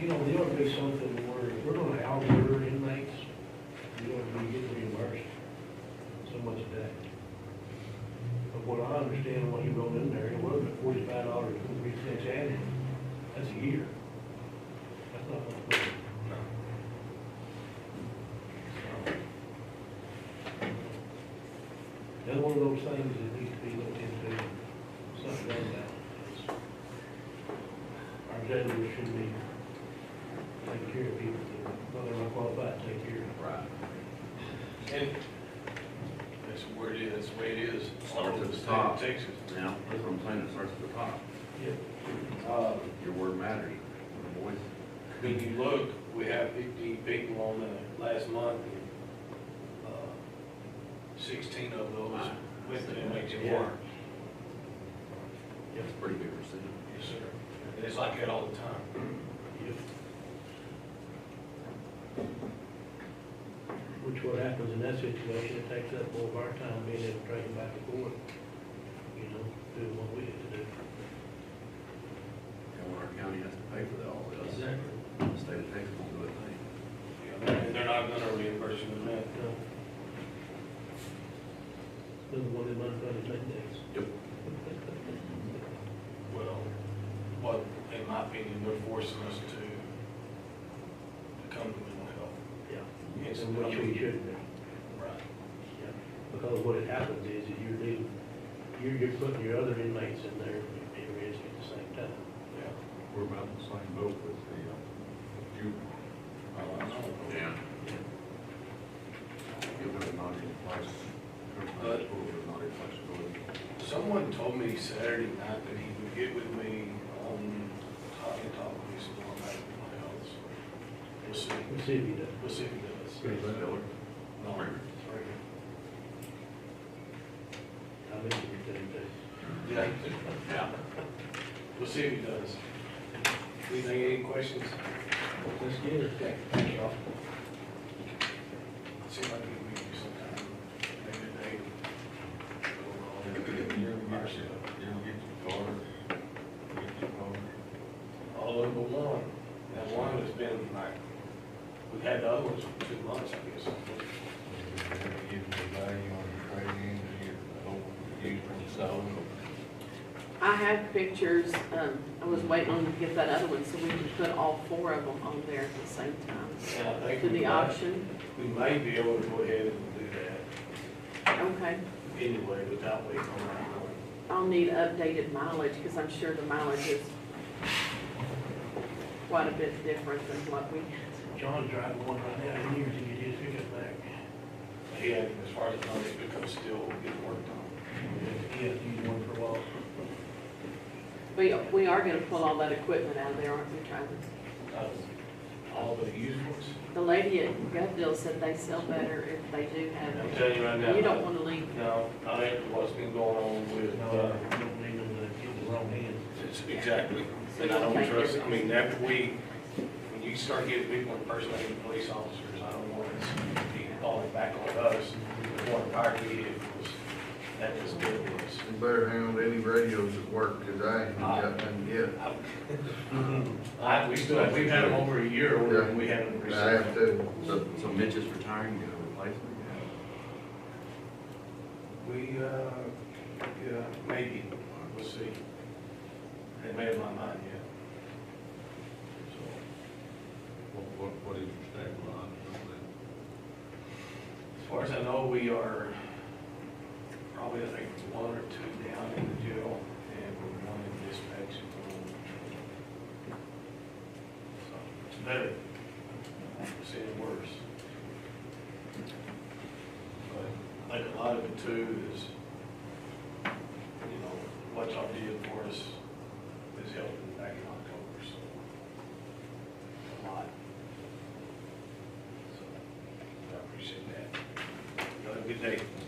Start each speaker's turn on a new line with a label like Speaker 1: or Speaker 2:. Speaker 1: you know, there ought to be something where, if we're gonna outlaw inmates, you ought to be getting reimbursed so much a day. But what I understand, what he wrote in there, it wasn't forty-five dollars and three cents annual, that's a year. That's not much money. That's one of those things that needs to be looked into, something done about. it. Our judges should be taking care of people that, well, they're not qualified to take care of.
Speaker 2: Right. And that's where it is, that's the way it is.
Speaker 3: Starts at the
Speaker 2: State of
Speaker 3: top.
Speaker 2: Texas.
Speaker 3: Now, that's what I'm saying, it starts at the top.
Speaker 1: Yeah.
Speaker 2: Uh,
Speaker 3: Your word matters, your voice.
Speaker 2: When you look, we have fifteen people on the uh, last month, and, uh, sixteen of those went to MHMR.
Speaker 3: It's a pretty big percentage.
Speaker 2: Yes, sir. And it's like that all the time.
Speaker 1: Yep. Which what happens in that situation, it takes up more of our time being able to take them back to court, you know, doing what we have to do.
Speaker 3: And when our county has to pay for that, all this,
Speaker 1: Exactly.
Speaker 3: the state of Texas will do it, they.
Speaker 2: And they're not gonna reimburse you in that.
Speaker 1: No. Doesn't want them unfunded mandates.
Speaker 3: Yep.
Speaker 2: Well, what, in my opinion, they're forcing us to, to come to mental health.
Speaker 1: Yeah.
Speaker 2: Yes.
Speaker 1: And which we shouldn't be.
Speaker 2: Right.
Speaker 1: Yeah, Because what it happens is that you're dealing, you're, you're putting your other inmates in there and risk at the same time.
Speaker 2: Yeah.
Speaker 4: We're about the same boat with the uh, juvenile.
Speaker 2: Oh, I know.
Speaker 3: Yeah.
Speaker 4: Give them not inflexible.
Speaker 3: Uh,
Speaker 2: But-
Speaker 4: Not inflexible.
Speaker 2: Someone told me Saturday night that he would get with me on Hot and Talk with some more about my health. We'll see,
Speaker 1: Let's see if he does.
Speaker 2: we'll see if he does.
Speaker 4: Good.
Speaker 3: Spiller.
Speaker 2: No,
Speaker 3: Right.
Speaker 2: right.
Speaker 1: I think he did, but
Speaker 2: Yeah,
Speaker 3: Yeah.
Speaker 2: we'll see if he does. Anything, any questions?
Speaker 1: let's get it.
Speaker 2: Okay, thank you all. See if I can meet you sometime, maybe a day.
Speaker 4: You ever get your, you ever get your daughter, get your daughter,
Speaker 2: All over but one. That one has been like, we've had the other ones for two months, I guess.
Speaker 4: give her value on your trade-in, or your, or you from sold,
Speaker 5: I have pictures, um, I was waiting on to get that other one, so we can put all four of them on there at the same time,
Speaker 2: And I think
Speaker 5: to
Speaker 2: we
Speaker 5: the
Speaker 2: might,
Speaker 5: auction,
Speaker 2: we might be able to go ahead and do that
Speaker 5: okay.
Speaker 2: anyway without waiting on that one.
Speaker 5: I'll need updated mileage, because I'm sure the mileage is quite a bit different than what we,
Speaker 1: John's driving one right now, he needs to get his pickup back.
Speaker 2: But Yeah, as far as money becomes still getting worked on.
Speaker 1: He has to use one for a while.
Speaker 5: we, we are gonna pull all that equipment out of there, aren't we, Travis?
Speaker 2: Uh, All the used ones.
Speaker 5: The lady at Gov Deal said they sell better if they do have
Speaker 2: I'm
Speaker 5: it.
Speaker 2: telling you right now.
Speaker 5: You don't wanna leave,
Speaker 2: No, I think what's been going on with,
Speaker 1: No,
Speaker 2: uh,
Speaker 1: I don't need him to get the wrong hand.
Speaker 2: it's- exactly.
Speaker 5: So
Speaker 2: And I
Speaker 5: you'll
Speaker 2: don't
Speaker 5: take
Speaker 2: trust, I
Speaker 5: everything.
Speaker 2: mean, after we, when you start getting people impersonating police officers, I don't want us to be falling back on us. We want our vehicles, that is good with us.
Speaker 6: You better handle any radios at work, because I ain't got none yet.
Speaker 2: I, we still, we've had them over a year,
Speaker 6: Yeah.
Speaker 2: and we haven't
Speaker 6: I
Speaker 2: received.
Speaker 6: have to,
Speaker 3: So, so Mitch is retiring, you got a replacement?
Speaker 2: We, uh, yeah, maybe, we'll see. Haven't made up my mind yet. So,
Speaker 4: what, what, what is your stable on, it?
Speaker 2: As far as I know, we are probably, I think, one or two down in the jail, and we're one in dispatch. So, It's better, it's any worse. But I think a lot of it too is, you know, what y'all did for us is helping back in October, so. A lot. So, I appreciate that. Y'all have a good day.
Speaker 5: Mm-hmm.